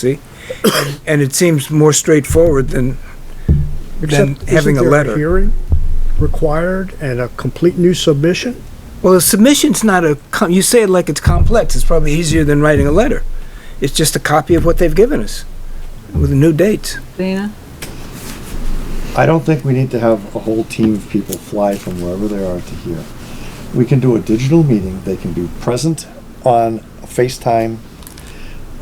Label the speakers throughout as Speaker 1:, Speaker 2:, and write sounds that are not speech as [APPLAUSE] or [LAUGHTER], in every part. Speaker 1: See? And- And it seems more straightforward than, than
Speaker 2: Except,
Speaker 1: having a
Speaker 2: isn't there
Speaker 1: letter.
Speaker 2: Hearing required and a complete new submission?
Speaker 1: Well, a submission's not a, com- you say it like it's complex, it's probably easier than writing a letter. It's just a copy of what they've given us with new dates.
Speaker 3: Dana?
Speaker 4: I don't think we need to have a whole team of people fly from wherever they are to here. We can do a digital meeting, they can be present on FaceTime,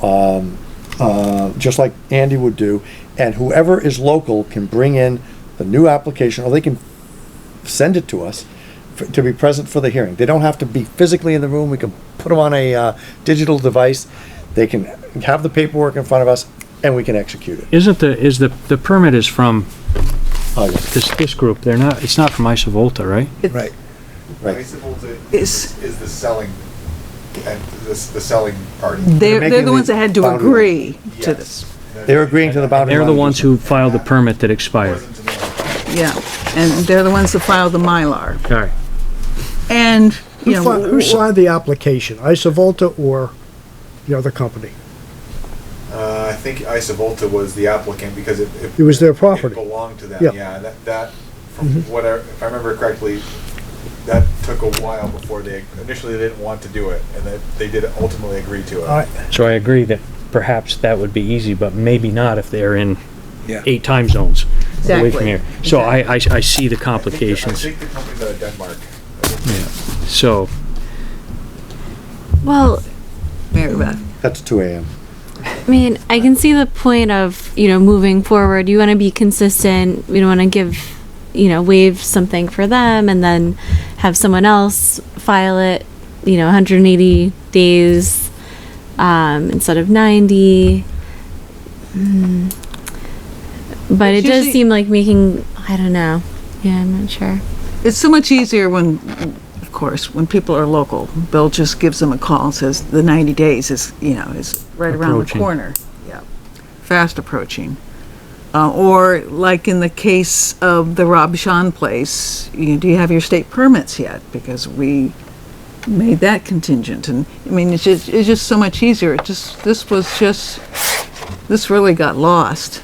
Speaker 4: um, uh, just like Andy would do, and whoever is local can bring in the new application, or they can send it to us for- to be present for the hearing. They don't have to be physically in the room, we can put them on a, uh, digital device, they can have the paperwork in front of us, and we can execute it.
Speaker 5: Isn't the, is the, the permit is from
Speaker 4: Oh, yeah,
Speaker 5: this, this group, they're not, it's not from Isovolta, right?
Speaker 1: Right.
Speaker 4: Right.
Speaker 6: Isovolta
Speaker 3: Is-
Speaker 6: is, is the selling, and this, the selling party.
Speaker 3: They're, they're
Speaker 4: making
Speaker 3: the ones
Speaker 4: the
Speaker 3: that had to
Speaker 4: boundary.
Speaker 3: agree to
Speaker 6: Yes.
Speaker 3: this,
Speaker 4: They're agreeing to the boundary
Speaker 5: They're the
Speaker 4: line.
Speaker 5: ones who filed the permit that expired.
Speaker 6: Wasn't to me.
Speaker 3: yeah. And they're the ones that filed the Mylar.
Speaker 5: All right.
Speaker 3: And, you
Speaker 2: Who fi-
Speaker 3: know,
Speaker 2: who signed the application, Isovolta or the other company?
Speaker 6: Uh, I think Isovolta was the applicant because it.
Speaker 2: It was their property.
Speaker 6: It belonged to
Speaker 2: Yeah. Mm-hmm.
Speaker 6: them, yeah, that, that, from what I, if I remember correctly, that took a while before they, initially they didn't want to do it, and they, they did ultimately agree to it.
Speaker 2: All right.
Speaker 5: So I agree that perhaps that would be easy, but maybe not if they're in
Speaker 1: Yeah.
Speaker 5: eight time zones away
Speaker 3: Exactly.
Speaker 5: from here. So I, I, I see the
Speaker 6: I think the-
Speaker 5: complications,
Speaker 6: I think the company's out of Denmark.
Speaker 5: so.
Speaker 7: Well,
Speaker 3: Mary Beth,
Speaker 4: That's two AM.
Speaker 7: I mean, I can see the point of, you know, moving forward. You want to be consistent. We don't want to give, you know, waive something for them and then have someone else file it, you know, 180 days um, instead of 90. Mm. But
Speaker 3: It's
Speaker 7: it does
Speaker 3: usually-
Speaker 7: seem like making, I don't know. Yeah, I'm not sure.
Speaker 3: it's so much easier when, of course, when people are local. Bill just gives them a call and says the 90 days is, you know, is right around the
Speaker 5: Approaching.
Speaker 3: corner. Yeah, fast approaching. Uh, or like in the case of the Rob Sean place, you, do you have your state permits yet? Because we made that contingent, and I mean, it's just it's just so much easier. It just this was just this really got lost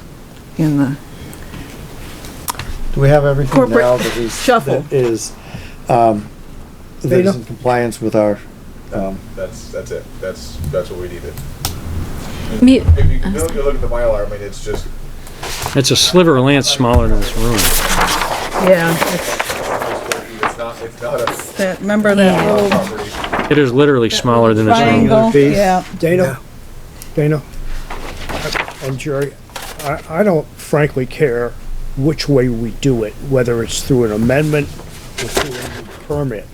Speaker 3: in the
Speaker 4: Do we have everything
Speaker 3: Corporate
Speaker 4: now that is,
Speaker 3: shuffle.
Speaker 4: that is, um, that is in compliance with our, um,
Speaker 6: That's, that's it, that's, that's what we needed.
Speaker 7: Me-
Speaker 6: If you, if you look at the Mylar, I mean, it's just,
Speaker 5: It's a sliver of land smaller than this room.
Speaker 3: yeah.
Speaker 6: it's not, it's not a
Speaker 3: That, remember
Speaker 7: that
Speaker 3: old
Speaker 6: property.
Speaker 5: It is literally smaller than this room.
Speaker 2: Triangle, piece.
Speaker 3: Yeah.
Speaker 2: Dana, Dana, and Jerry, I, I don't frankly care which way we do it, whether it's through an amendment or through a new permit,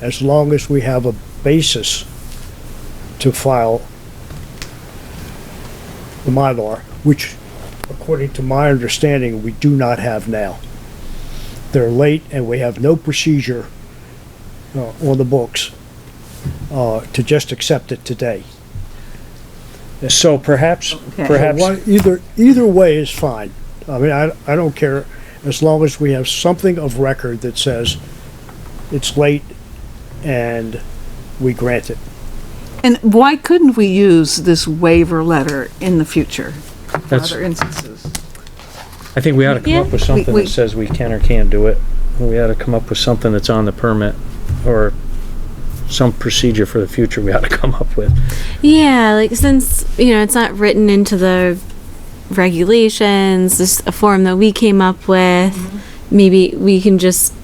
Speaker 2: as long as we have a basis to file the Mylar, which, according to my understanding, we do not have now. They're late and we have no procedure uh, on the books uh, to just accept it today.
Speaker 5: So perhaps, perhaps,
Speaker 2: One- Either, either way is fine. I mean, I, I don't care, as long as we have something of record that says it's late and we grant it.
Speaker 3: And why couldn't we use this waiver letter in the future for
Speaker 5: That's-
Speaker 3: other instances?
Speaker 5: I think we ought to come up with
Speaker 3: Yeah.
Speaker 5: something
Speaker 3: We- we-
Speaker 5: that says we can or can't do it. We ought to come up with something that's on the permit or some procedure for the future we ought to come up with.
Speaker 7: Yeah, like since you know it's not written into the regulations, just a form that we came up with. Maybe we can just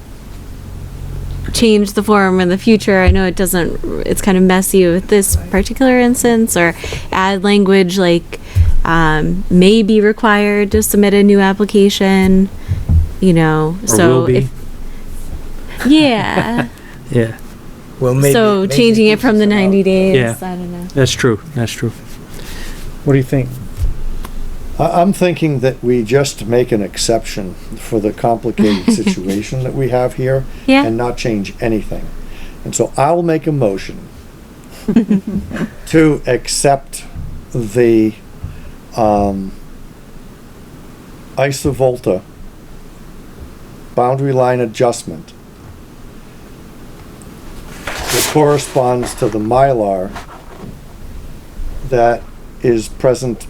Speaker 7: change the form in the future. I know it doesn't. It's kind of messy with this particular instance, or add language like um, may be required to submit a new application. You know,
Speaker 5: Or
Speaker 7: so
Speaker 5: will be.
Speaker 7: if yeah,
Speaker 5: [LAUGHS] Yeah,
Speaker 1: Well, maybe.
Speaker 7: so
Speaker 1: maybe
Speaker 7: changing it
Speaker 1: gives
Speaker 7: from
Speaker 1: us
Speaker 7: the
Speaker 1: an out.
Speaker 7: ninety days.
Speaker 5: Yeah.
Speaker 7: I don't know.
Speaker 5: that's true, that's true. What do you think?
Speaker 4: I, I'm thinking that we just make an exception for the complicated situation that we have here
Speaker 7: Yeah.
Speaker 4: and not change anything. And so I'll make a motion to accept the, um, Isovolta boundary line adjustment that corresponds to the Mylar that is present